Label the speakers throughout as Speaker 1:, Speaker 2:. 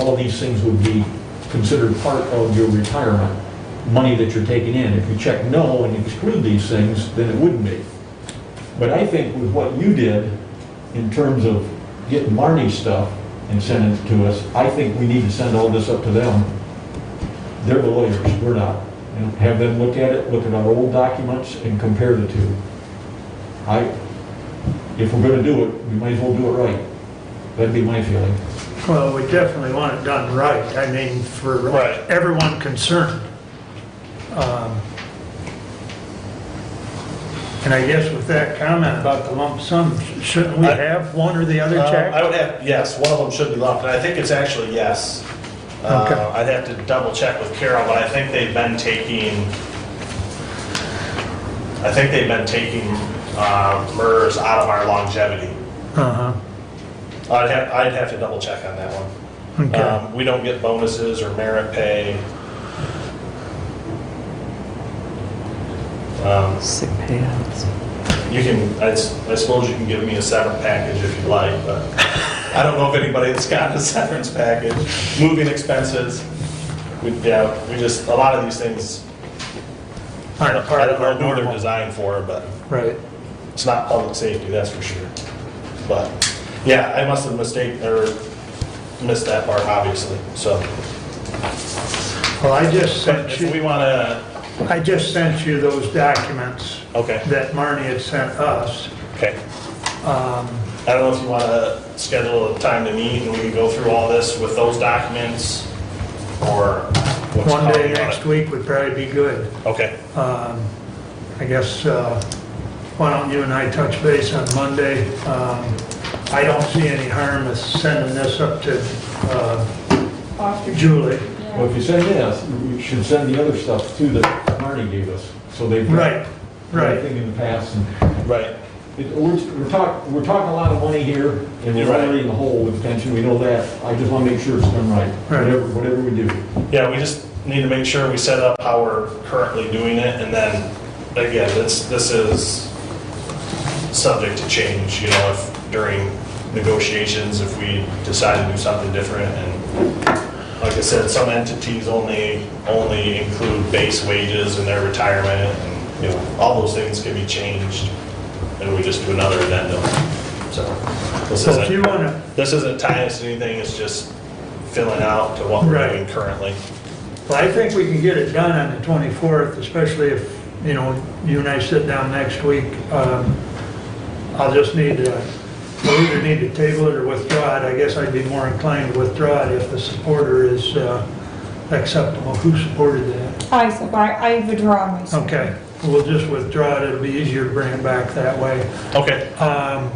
Speaker 1: all these things would be considered part of your retirement, money that you're taking in. If you check no and exclude these things, then it wouldn't be. But I think with what you did, in terms of getting Marnie's stuff and sending it to us, I think we need to send all this up to them. They're the lawyers, we're not. And have them look at it, look at our old documents and compare the two. I, if we're gonna do it, we might as well do it right. That'd be my feeling.
Speaker 2: Well, we definitely want it done right, I mean, for
Speaker 3: Right.
Speaker 2: everyone concerned. Um, And I guess with that comment about the lump sum, shouldn't we
Speaker 3: I-
Speaker 2: have one or the other,
Speaker 3: Uh, I
Speaker 2: Jack?
Speaker 3: would have, yes, one of them should be lumped, and I think it's actually yes.
Speaker 2: Okay.
Speaker 3: Uh, I'd have to double check with Carol, but I think they've been taking, I think they've been taking uh, MERS out of our longevity.
Speaker 2: Uh-huh,
Speaker 3: I'd have, I'd have to double check on that one.
Speaker 2: okay.
Speaker 3: Um, We don't get bonuses or merit pay. Um,
Speaker 4: Sick payouts.
Speaker 3: You can, I s- I suppose you can give me a severance package if you'd like, but I don't know if anybody that's got a severance package. Moving expenses, we, yeah, we just, a lot of these things, I don't I don't know what they're designed for, but
Speaker 2: Right,
Speaker 3: it's not public safety, that's for sure. But, yeah, I must have mistaken, or missed that part, obviously, so.
Speaker 2: well, I just
Speaker 3: But
Speaker 2: sent
Speaker 3: if we
Speaker 2: you,
Speaker 3: want to,
Speaker 2: I just sent you those documents
Speaker 3: okay,
Speaker 2: that Marnie had sent us.
Speaker 3: okay.
Speaker 2: Um,
Speaker 3: I don't know if you want to schedule a time to meet and we can go through all this with those documents or. what's
Speaker 2: One day
Speaker 3: coming on
Speaker 2: next
Speaker 3: it.
Speaker 2: week would probably be good.
Speaker 3: Okay,
Speaker 2: Um, I guess, uh, why don't you and I touch base on Monday? Um, I don't see any harm in sending this up to uh,
Speaker 5: Foster.
Speaker 2: Julie.
Speaker 1: Well, if you send this, you should send the other stuff too that Marnie gave us, so they've. got
Speaker 2: Right, right.
Speaker 1: Everything in the past. And
Speaker 3: right.
Speaker 1: it- We're, we're talking, we're talking a lot of money here, and
Speaker 3: You're
Speaker 1: we're
Speaker 3: right.
Speaker 1: already in the hole with pension, we know that. I just wanna make sure it's done right,
Speaker 2: Right.
Speaker 1: whatever, whatever we do.
Speaker 3: Yeah, we just need to make sure we set up how we're currently doing it and then, again, this, this is subject to change, you know, if during negotiations, if we decide to do something different and like I said, some entities only, only include base wages in their retirement and, you know, all those things can be changed and we just do another addendum, so. this
Speaker 2: So if
Speaker 3: isn't-
Speaker 2: you want to,
Speaker 3: this isn't tying us to anything, it's just filling out to what we're
Speaker 2: Right.
Speaker 3: doing currently.
Speaker 2: well, I think we can get it done on the 24th, especially if, you know, you and I sit down next week. Um, I'll just need to, we either need to table it or withdraw it. I guess I'd be more inclined to withdraw it if the supporter is uh, acceptable. Who supported that?
Speaker 5: I, sub- I I withdraw myself.
Speaker 2: Okay, we'll just withdraw it, it'll be easier to bring it back that way.
Speaker 3: Okay,
Speaker 2: Um,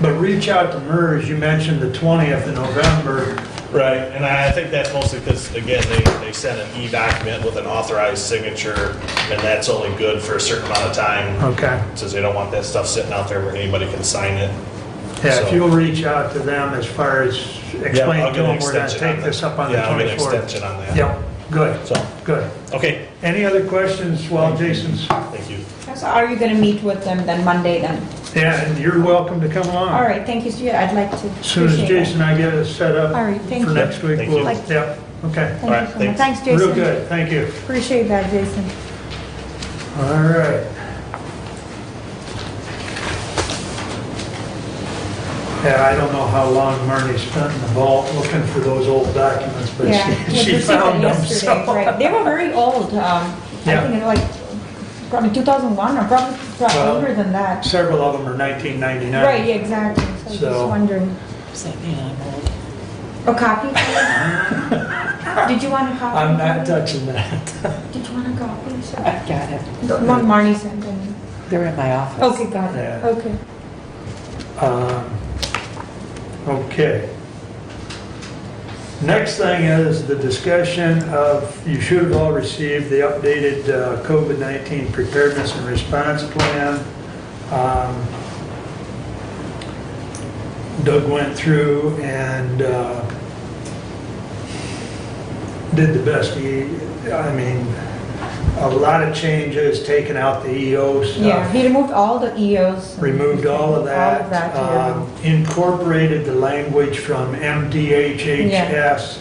Speaker 2: But reach out to MERS, you mentioned the 20th of November.
Speaker 3: right, and I think that's mostly because, again, they, they send an e-document with an authorized signature, and that's only good for a certain amount of time,
Speaker 2: Okay.
Speaker 3: since they don't want that stuff sitting out there where anybody can sign it.
Speaker 2: Yeah, if
Speaker 3: So-
Speaker 2: you'll reach out to them as far as
Speaker 3: Yeah, I'll
Speaker 2: explain to
Speaker 3: get an
Speaker 2: them, we're gonna
Speaker 3: extension on
Speaker 2: take
Speaker 3: that.
Speaker 2: this up on the 24th.
Speaker 3: Yeah, I'll get an extension on that.
Speaker 2: Yep, good,
Speaker 3: So,
Speaker 2: good.
Speaker 3: okay,
Speaker 2: Any other questions while Jason's,
Speaker 3: thank you.
Speaker 5: So are you gonna meet with them then Monday then?
Speaker 2: yeah, and you're welcome to come along.
Speaker 5: All right, thank you, Stuart. I'd like to.
Speaker 2: As soon as
Speaker 5: appreciate that.
Speaker 2: Jason and I get it set up
Speaker 5: All right, thank
Speaker 2: for
Speaker 5: you.
Speaker 2: next week,
Speaker 3: Thank
Speaker 2: we'll,
Speaker 3: you.
Speaker 2: yep, okay.
Speaker 3: All right,
Speaker 5: Thank you so much.
Speaker 3: thanks.
Speaker 5: Thanks,
Speaker 2: Real
Speaker 5: Jason.
Speaker 2: good, thank you.
Speaker 5: Appreciate that, Jason.
Speaker 2: All right. Yeah, I don't know how long Marnie spent in the vault looking for those old documents, but
Speaker 5: Yeah.
Speaker 2: she-
Speaker 5: we
Speaker 2: she
Speaker 5: received
Speaker 2: found
Speaker 5: that
Speaker 2: them,
Speaker 5: yesterday,
Speaker 2: so.
Speaker 5: right. They were very old, um, I
Speaker 2: Yeah.
Speaker 5: think it was like probably 2001 or probably probably
Speaker 2: Well,
Speaker 5: older than that.
Speaker 2: Several of them are 1999.
Speaker 5: Right, yeah, exactly. So I was
Speaker 2: So-
Speaker 5: just wondering.
Speaker 4: Does that mean I'm old?
Speaker 5: A copy? Did you want a copy?
Speaker 2: I'm not uh, touching that.
Speaker 5: Did you want a copy? Sure.
Speaker 4: I've got it.
Speaker 5: The one Marnie sent in.
Speaker 4: They're in my office.
Speaker 5: Okay, got it.
Speaker 2: Yeah.
Speaker 5: Okay.
Speaker 2: Um, Okay. Next thing is the discussion of, you should have all received the updated uh, COVID-19 preparedness and response plan. Um, Doug went through and uh, did the best he, I mean, a lot of changes, taken out the EO stuff.
Speaker 5: Yeah, he removed all the EOs. and
Speaker 2: removed all of that,
Speaker 5: All of that. yeah.
Speaker 2: um, incorporated the language from
Speaker 5: Yeah.
Speaker 2: MDHHS